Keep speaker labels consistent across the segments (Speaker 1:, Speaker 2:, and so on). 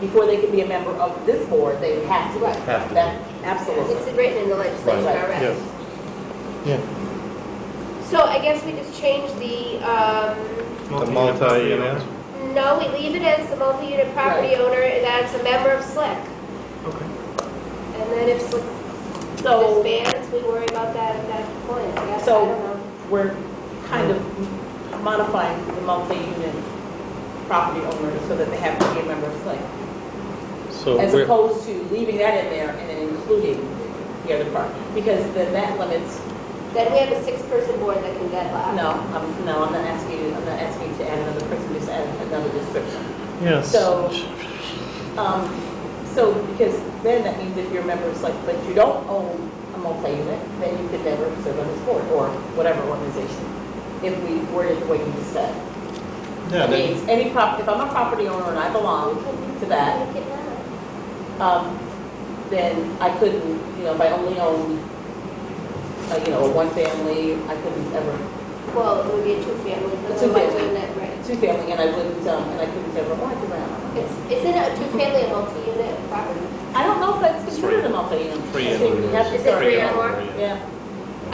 Speaker 1: before they could be a member of this board, they would have to.
Speaker 2: Right.
Speaker 3: Have to.
Speaker 1: That-
Speaker 2: It's
Speaker 1: Absolutely.
Speaker 2: written in the legislation
Speaker 1: Right.
Speaker 2: already.
Speaker 4: Yeah. Yeah,
Speaker 2: So I guess we just change the, um,
Speaker 3: The multi-unit.
Speaker 2: no, we leave it as the multi-unit property owner that's a member of SLIC.
Speaker 4: Okay.
Speaker 2: And then if SLIC
Speaker 1: So
Speaker 2: disbands, we worry about that at that point, I guess, I
Speaker 1: So-
Speaker 2: don't know.
Speaker 1: we're kind of modifying the multi-unit property owners so that they have to be a member of SLIC.
Speaker 4: So
Speaker 1: As
Speaker 4: we're,
Speaker 1: opposed to leaving that in there and then including the other part, because then that limits,
Speaker 2: Then we have a six-person board that can deadlock.
Speaker 1: no, I'm, no, I'm not asking you, I'm not asking you to add another person, just add another description.
Speaker 4: yes.
Speaker 1: So- Um, so, because then that means if you're a member, it's like, but you don't own a multi-unit, then you could never serve on this board or whatever organization, if we worded the way you just said.
Speaker 3: Yeah,
Speaker 1: It
Speaker 3: they-
Speaker 1: means any prop, if I'm a property owner and I belong to that,
Speaker 2: We can, uh,
Speaker 1: um, then I couldn't, you know, if I only owned, uh, you know, one family, I couldn't ever,
Speaker 2: Well, it would be a two-family,
Speaker 1: A
Speaker 2: but
Speaker 1: two-family.
Speaker 2: multi-unit, right.
Speaker 1: two family, and I wouldn't, um, and I couldn't ever want to rent.
Speaker 2: It's, isn't a two-family a multi-unit property?
Speaker 1: I don't know if that's considered a multi-unit.
Speaker 3: Three
Speaker 1: I think we have to
Speaker 2: Is it
Speaker 1: start,
Speaker 2: three or more?
Speaker 1: yeah,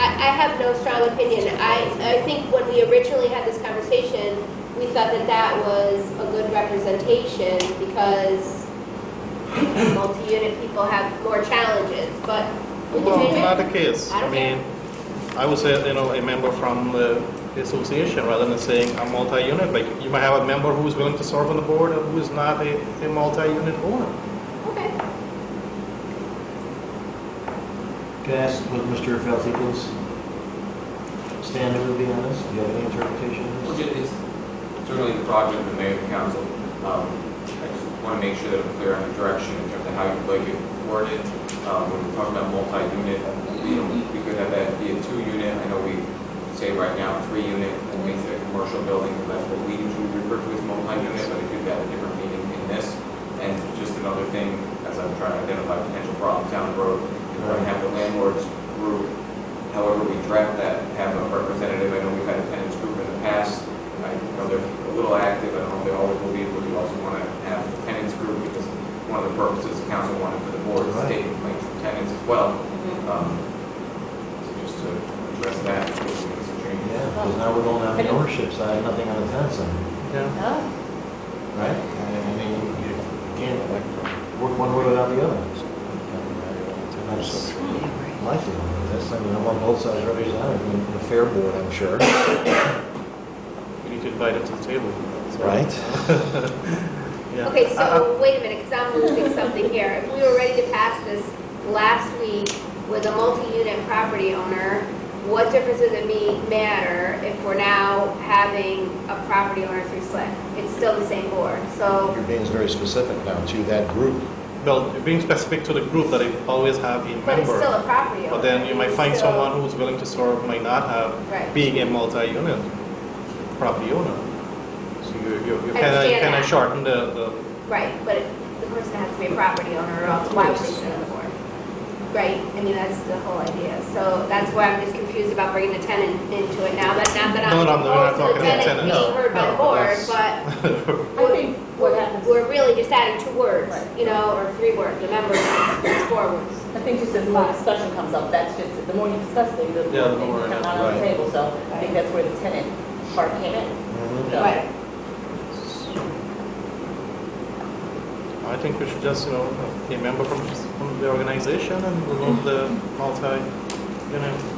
Speaker 2: I, I have no strong opinion. I, I think when we originally had this conversation, we thought that that was a good representation because multi-unit people have more challenges, but we can
Speaker 3: Well,
Speaker 2: change
Speaker 3: not
Speaker 2: it.
Speaker 3: the case.
Speaker 2: I
Speaker 3: I
Speaker 2: don't
Speaker 3: mean, I would say, you know, a member from the association rather than saying a multi-unit. Like, you might have a member who is willing to serve on the board and who is not a, a multi-unit owner.
Speaker 2: Okay.
Speaker 5: Can I ask what Mr. Felseca's stand would be on this? Do you have any interpretation of
Speaker 6: Well,
Speaker 5: this?
Speaker 6: ju- it's certainly the project of the mayor and council. Um, I just want to make sure that I'm clear on the direction in terms of how you'd like it worded. Um, When we're talking about multi-unit, you know, we could have that be a two-unit. I know we say right now three-unit, that makes it a commercial building, and that's what we usually refer to as multi-unit, but it could have a different meaning in this. And just another thing, as I'm trying to identify potential problems down the road, is when I have the landlord's group however we draft that, have a representative, I know we've had a tenants group in the past, I know they're a little active, I don't know if they always will be, but we also want to have a tenants group, because one of the purposes the council wanted for the board is to take complaints from tenants as well.
Speaker 1: Mm-hmm.
Speaker 6: Um, So just to address that, we can make some
Speaker 5: Yeah,
Speaker 6: changes.
Speaker 5: because now we're going on the ownership side, nothing on the tenant side,
Speaker 4: Yeah.
Speaker 1: Oh,
Speaker 5: right? I mean, you can't like, work one way without the other. That's my feeling on this. I mean, I'm on both sides represented, I mean, the fair board, I'm sure,
Speaker 3: We need to invite them to the table. so-
Speaker 5: right?
Speaker 3: Yeah. Uh,
Speaker 2: Okay,
Speaker 3: I- I-
Speaker 2: so wait a minute, because I'm losing something here. If we were ready to pass this last week with a multi-unit property owner, what difference does it me- matter if we're now having a property owner through SLIC? It's still the same board, so,
Speaker 5: You're being very specific now to that group.
Speaker 3: uh, Well, being specific to the group that they always have a
Speaker 2: but it's still
Speaker 3: member.
Speaker 2: a property owner.
Speaker 3: But then you might
Speaker 2: It's
Speaker 3: find
Speaker 2: still-
Speaker 3: someone who's willing to serve, might not have,
Speaker 2: Right.
Speaker 3: being a multi-unit property owner. So you, you, you
Speaker 2: I
Speaker 3: kind of,
Speaker 2: understand
Speaker 3: kind
Speaker 2: that.
Speaker 3: of shorten the, the
Speaker 2: Right, but the person has to be a property owner or else why would they sit on the board? Right, I mean, that's the whole idea. So that's why I'm just confused about bringing the tenant into it now, but not that I'm
Speaker 3: No, no, no, we're not
Speaker 2: opposed to
Speaker 3: talking
Speaker 2: the
Speaker 3: about
Speaker 2: tenant
Speaker 3: tenant, no,
Speaker 2: being heard by
Speaker 3: no,
Speaker 2: the board,
Speaker 3: that's-
Speaker 2: but
Speaker 1: I think what happens,
Speaker 2: we're really just adding two words,
Speaker 1: Right.
Speaker 2: you know, or three words, the member, it's four words.
Speaker 1: I think just as more discussion comes up, that's just, the more you discuss things, the
Speaker 3: Yeah,
Speaker 1: more
Speaker 3: the more
Speaker 1: things
Speaker 3: it
Speaker 1: come
Speaker 3: has-
Speaker 1: out on the
Speaker 5: right.
Speaker 1: table, so I think that's where the tenant part came in.
Speaker 5: Mhm.
Speaker 1: Yeah.
Speaker 2: Right.
Speaker 3: I think we should just, you know, a member from, from the organization and remove the multi, you know.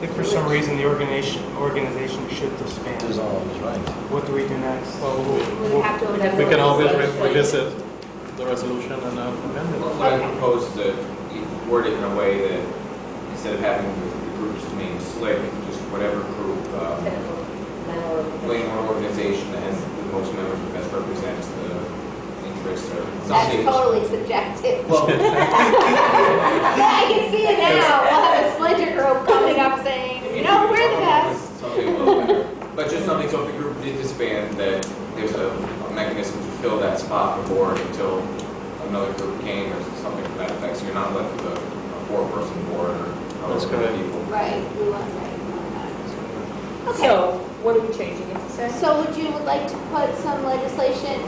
Speaker 7: If for some reason the organization, organization should disband,
Speaker 5: Dissolves, right?
Speaker 7: what do we do next?
Speaker 3: Well,
Speaker 2: We would have to. amend
Speaker 3: We
Speaker 2: the
Speaker 3: can always re-
Speaker 2: legislation.
Speaker 3: revisit the resolution and uh, amend it.
Speaker 6: Well, What I propose is that you word it in a way that instead of having the groups named SLIC, just whatever group, um,
Speaker 1: Tenant or landlord.
Speaker 6: Playing one organization that has the most members that best represents the interests or
Speaker 2: That's
Speaker 6: something.
Speaker 2: totally subjective.
Speaker 6: Well,
Speaker 2: I can see it now, we'll have a splinter group coming up saying, you know, we're the best.
Speaker 6: Something a little better. But just something, so if the group did disband, that there's a a mechanism to fill that spot before until another group came or something to that effect. So you're not left with a a four-person board or
Speaker 3: That's
Speaker 6: however
Speaker 3: correct.
Speaker 6: many people.
Speaker 2: Right, we want, right, we want that.
Speaker 1: So, what are we changing it to say?
Speaker 2: So would you like to put some legislation,